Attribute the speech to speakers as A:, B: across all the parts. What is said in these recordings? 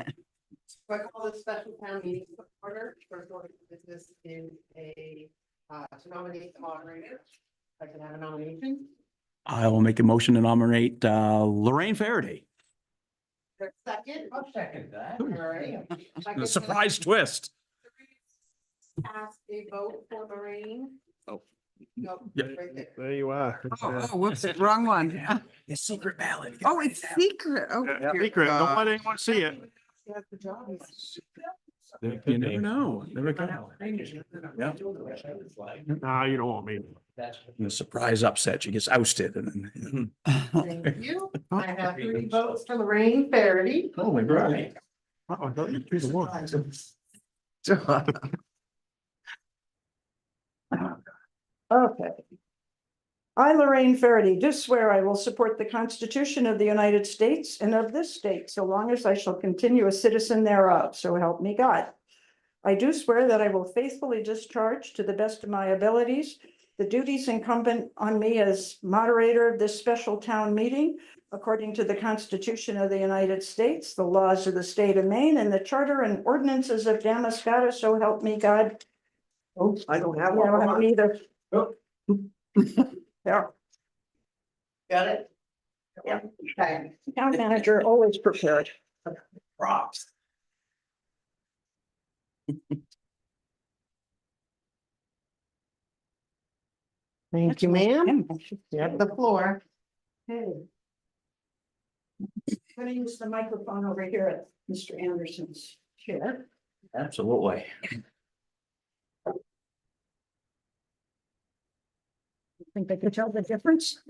A: So I call this special town meeting to order, first order of business is a, uh, to nominate the moderator. If I can have a nomination.
B: I will make a motion to nominate uh, Lorraine Faraday.
A: There's a second.
C: I'll second that.
A: All right. If I could
B: A
A: have
B: surprise twist.
A: three Cast a vote for Lorraine.
B: Oh.
A: Nope,
B: Yeah.
A: right there.
D: There you are.
E: Oh, oh, whoops, wrong one. Uh,
B: The secret ballot.
E: Oh, it's secret. Oh. dear
D: Secret, don't
E: God.
B: Uh,
D: let anyone see it.
A: She has the job.
B: You never know. Never know.
D: Nah, you don't want me.
B: The surprise upset. She gets ousted and then.
A: Thank you. I have three votes for Lorraine Faraday.
B: Holy
C: right.
D: Uh-oh, don't you do the work.
F: Okay. I, Lorraine Faraday, do swear I will support the Constitution of the United States and of this state, so long as I shall continue a citizen thereof, so help me God. I do swear that I will faithfully discharge to the best of my abilities the duties incumbent on me as moderator of this special town meeting according to the Constitution of the United States, the laws of the state of Maine, and the charter and ordinances of Damascata, so help me God. Oh,
C: I don't have
F: yeah, I don't either.
C: Oh.
F: There,
A: Got it?
F: Yeah.
A: Okay.
F: town manager always prepared.
C: Props.
A: Thank you, ma'am. You have the floor.
F: Hey. I'm gonna use the microphone over here at Mr. Anderson's chair.
B: Absolutely.
F: Think they could tell the difference?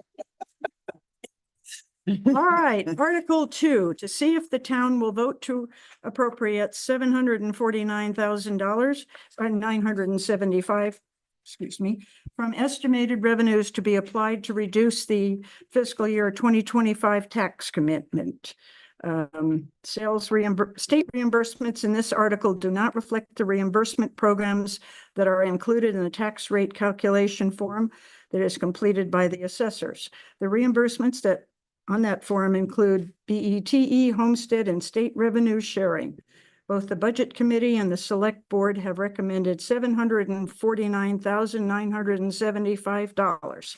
F: All right, Article Two, to see if the town will vote to appropriate seven hundred and forty-nine thousand dollars or nine hundred and seventy-five, excuse me, from estimated revenues to be applied to reduce the fiscal year twenty twenty-five tax commitment. Um, sales reimbur, state reimbursements in this article do not reflect the reimbursement programs that are included in the tax rate calculation form that is completed by the assessors. The reimbursements that on that forum include BETE, E, homestead, and state revenue sharing. Both the Budget Committee and the Select Board have recommended seven hundred and forty-nine thousand nine hundred and seventy-five dollars.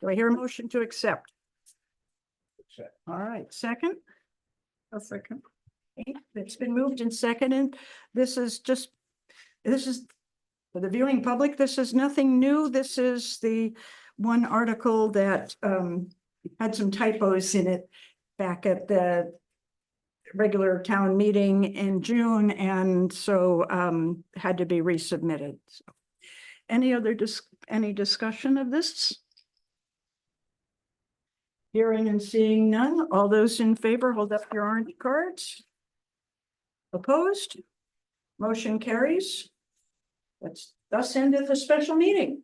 F: Do I hear a motion to accept?
C: Accept.
F: All right, second? A second. It's been moved and seconded. This is just, this is, for the viewing public, this is nothing new. This is the one article that um had some typos in it back at the regular town meeting in June, and so um had to be resubmitted. So, Any other dis- any discussion of this? Hearing and seeing none, all those in favor, hold up your orange cards. Opposed? Motion carries. That's thus endeth the special meeting.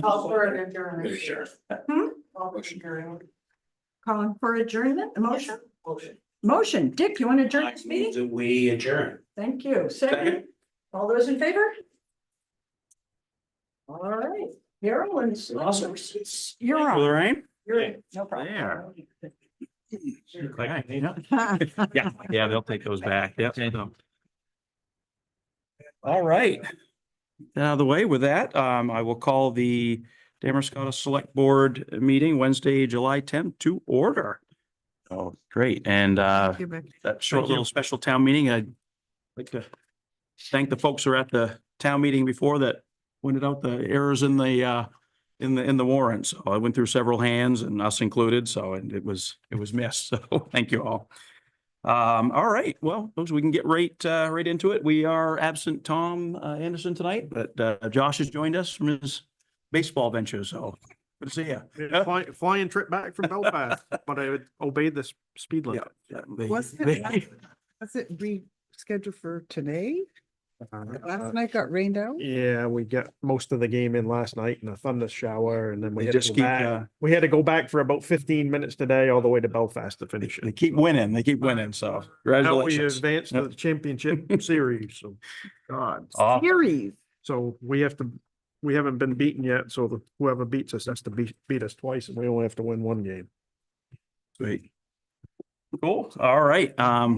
A: Call for an adjournment.
C: Sure.
F: Hmm?
A: Call for adjournment.
F: Calling for adjournment, a motion?
C: Motion.
F: Motion, Dick, you want to adjourn this meeting?
C: Do we adjourn?
F: Thank you. Second,
C: Second.
F: all those in favor? All right, Carol and
B: Awesome.
F: You're on.
B: Lorraine?
F: You're, no problem.
B: There.
C: Okay.
B: Yeah, yeah, they'll take those back. Yep. All right. Out of the way with that, um, I will call the Damerscott Select Board meeting Wednesday, July tenth to order. Oh, great. And, uh,
E: Thank you, Rick.
B: that short little special town meeting. I'd like to thank the folks who were at the town meeting before that pointed out the errors in the, uh, in the, in the warrant. So I went through several hands and us included, so and it was, it was missed. So thank you all. Um, all right, well, folks, we can get right, uh, right into it. We are absent Tom uh, Anderson tonight, but, uh, Josh has joined us from his baseball venture, so good to see you.
D: It's fly- Flying trip back from Belfast, but I would obey this speed limit.
E: Was it- Was it rescheduled for today?
D: Uh,
E: Last night got rained out?
D: Yeah, we got most of the game in last night in a thunder shower and then we
B: They
D: had to
B: just
D: go
B: keep,
D: back.
B: uh,
D: We had to go back for about fifteen minutes today, all the way to Belfast to finish
B: They
D: it.
B: keep winning. They keep winning. So
D: Now we
B: congratulations.
D: advanced to
B: Yep.
D: the championship series, so God.
B: Aw,
E: Series.
D: So we have to, we haven't been beaten yet, so the- whoever beats us has to beat, beat us twice and we only have to win one game.
B: sweet. Cool. All right. Um,